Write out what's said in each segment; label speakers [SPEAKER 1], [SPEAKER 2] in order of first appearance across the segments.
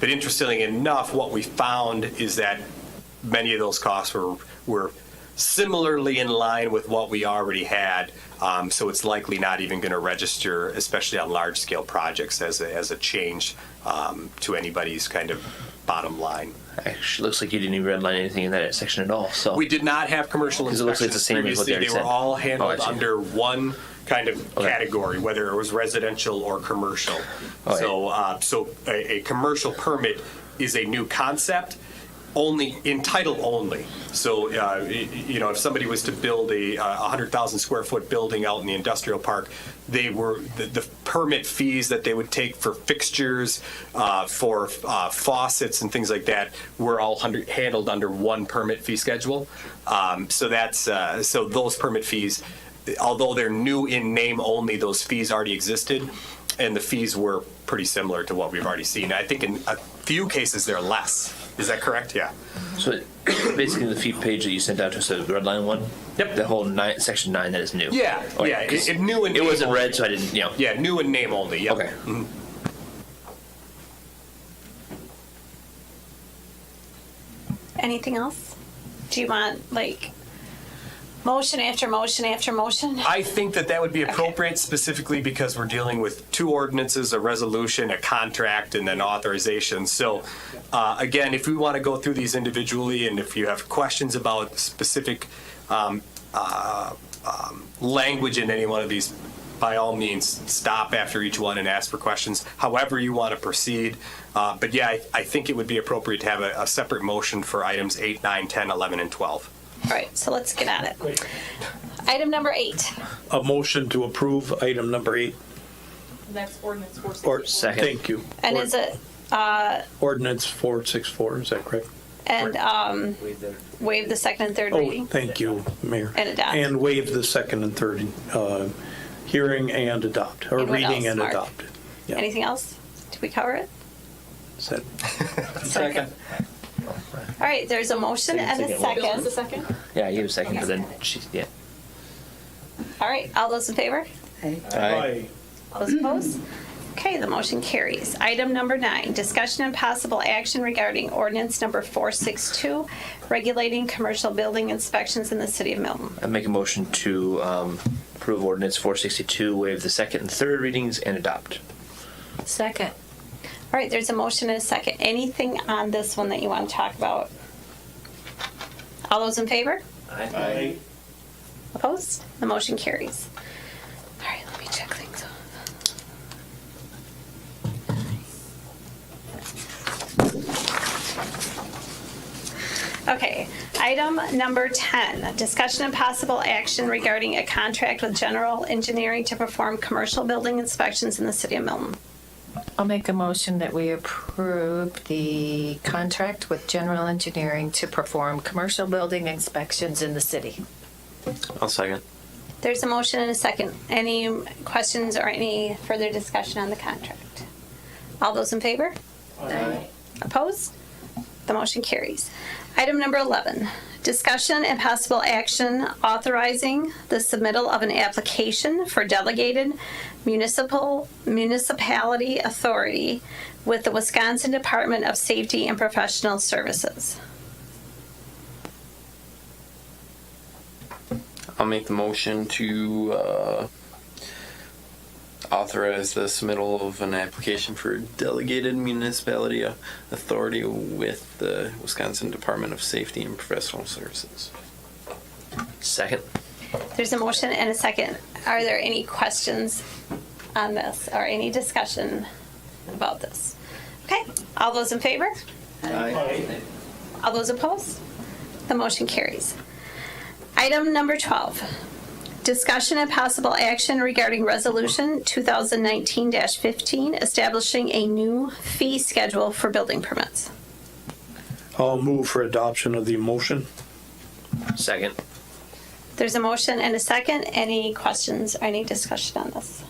[SPEAKER 1] But interestingly enough, what we found is that many of those costs were, were similarly in line with what we already had. Um, so it's likely not even going to register, especially on large scale projects, as a, as a change um, to anybody's kind of bottom line.
[SPEAKER 2] Actually, looks like you didn't even redline anything in that section at all. So
[SPEAKER 1] We did not have commercial
[SPEAKER 2] 'Cause it looks like it's the
[SPEAKER 1] inspections
[SPEAKER 2] same as what
[SPEAKER 1] previously.
[SPEAKER 2] they
[SPEAKER 1] They were
[SPEAKER 2] already said.
[SPEAKER 1] all
[SPEAKER 2] Oh, I
[SPEAKER 1] handled
[SPEAKER 2] see.
[SPEAKER 1] under one kind of
[SPEAKER 2] Okay.
[SPEAKER 1] category, whether it was residential or commercial.
[SPEAKER 2] All right.
[SPEAKER 1] So, uh, so a, a commercial permit is a new concept, only, in title only. So, uh, y- you know, if somebody was to build a uh, 100,000 square foot building out in the industrial park, they were, the- the permit fees that they would take for fixtures, uh, for uh, faucets and things like that were all hundred- handled under one permit fee schedule. Um, So that's, uh, so those permit fees, although they're new in name only, those fees already existed, and the fees were pretty similar to what we've already seen. I think in a few cases, they're less. Is that correct? Yeah.
[SPEAKER 2] so basically the fee page that you sent out to us, the red line one.
[SPEAKER 1] Yep.
[SPEAKER 2] The whole nine, section nine that is new.
[SPEAKER 1] Yeah,
[SPEAKER 2] Oh,
[SPEAKER 1] yeah, it-
[SPEAKER 2] 'cause
[SPEAKER 1] it new and-
[SPEAKER 2] It wasn't red, so I didn't. You know.
[SPEAKER 1] Yeah, Mm-hmm. new in name only, yep.
[SPEAKER 2] Okay.
[SPEAKER 3] Anything else? Do you want like motion after motion after motion?
[SPEAKER 1] I think that that would be appropriate specifically because we're dealing with two ordinances, a resolution, a contract, and then authorization. So, uh, again, if we want to go through these individually and if you have questions about specific um, uh, um, language in any one of these, by all means, stop after each one and ask for questions, however you want to proceed. Uh, But yeah, I- I think it would be appropriate to have a a separate motion for items 8, 9, 10, 11, and 12.
[SPEAKER 3] All right, so let's get at it. Item number eight.
[SPEAKER 4] a motion to approve item number eight.
[SPEAKER 5] That's ordinance four
[SPEAKER 4] Or,
[SPEAKER 5] sixty-four.
[SPEAKER 2] Second.
[SPEAKER 4] thank you.
[SPEAKER 3] And is it,
[SPEAKER 4] Ordinance 464, is that correct?
[SPEAKER 3] and um, waive the second and third
[SPEAKER 4] Oh,
[SPEAKER 3] reading?
[SPEAKER 4] thank you, Mayor.
[SPEAKER 3] And adopt.
[SPEAKER 4] And waive the second and third uh, hearing and adopt, or
[SPEAKER 3] And what
[SPEAKER 4] reading
[SPEAKER 3] else,
[SPEAKER 4] and
[SPEAKER 3] Mark?
[SPEAKER 4] adopt. Yeah.
[SPEAKER 3] Anything else? Did we cover it?
[SPEAKER 4] Is that-
[SPEAKER 3] Second. All right, there's a motion and a
[SPEAKER 5] Bill is the
[SPEAKER 3] second.
[SPEAKER 5] second?
[SPEAKER 2] Yeah, you have a second, but
[SPEAKER 5] Okay.
[SPEAKER 2] then she, yeah.
[SPEAKER 3] All right, all those in favor?
[SPEAKER 2] Aye.
[SPEAKER 3] All those opposed? Okay, the motion carries. Item number nine, discussion and possible action regarding ordinance number 462, regulating commercial building inspections in the city of Milton.
[SPEAKER 2] I make a motion to um, approve ordinance 462, waive the second and third readings, and adopt.
[SPEAKER 6] Second.
[SPEAKER 3] All right, there's a motion and a second. Anything on this one that you want to talk about? All those in favor?
[SPEAKER 2] Aye.
[SPEAKER 3] Opposed? The motion carries. All right, let me check things off. Okay, item number 10, discussion and possible action regarding a contract with General Engineering to perform commercial building inspections in the city of Milton.
[SPEAKER 6] I'll make a motion that we approve the contract with General Engineering to perform commercial building inspections in the city.
[SPEAKER 2] I'll second.
[SPEAKER 3] There's a motion and a second. Any questions or any further discussion on the contract? All those in favor? Opposed? The motion carries. Item number 11, discussion and possible action authorizing the submittal of an application for delegated municipal, municipality authority with the Wisconsin Department of Safety and Professional Services.
[SPEAKER 7] I'll make the motion to uh, authorize the submittal of an application for delegated municipality uh, authority with the Wisconsin Department of Safety and Professional Services.
[SPEAKER 2] Second.
[SPEAKER 3] There's a motion and a second. Are there any questions on this or any discussion about this? Okay, all those in favor? All those opposed? The motion carries. Item number 12, discussion and possible action regarding Resolution 2019-15, establishing a new fee schedule for building permits.
[SPEAKER 4] I'll move for adoption of the motion.
[SPEAKER 2] Second.
[SPEAKER 3] There's a motion and a second. Any questions or any discussion on this?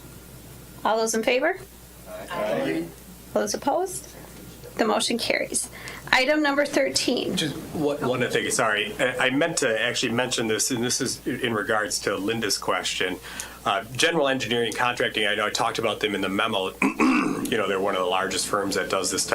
[SPEAKER 3] All those in favor? Those opposed? The motion carries. Item number 13.
[SPEAKER 1] Just one, one other thing, sorry. Uh, I I meant to actually mention this, and this is in regards to Linda's question. Uh, General Engineering Contracting, I know I talked about them in the memo. You know, they're one of the largest firms that does this type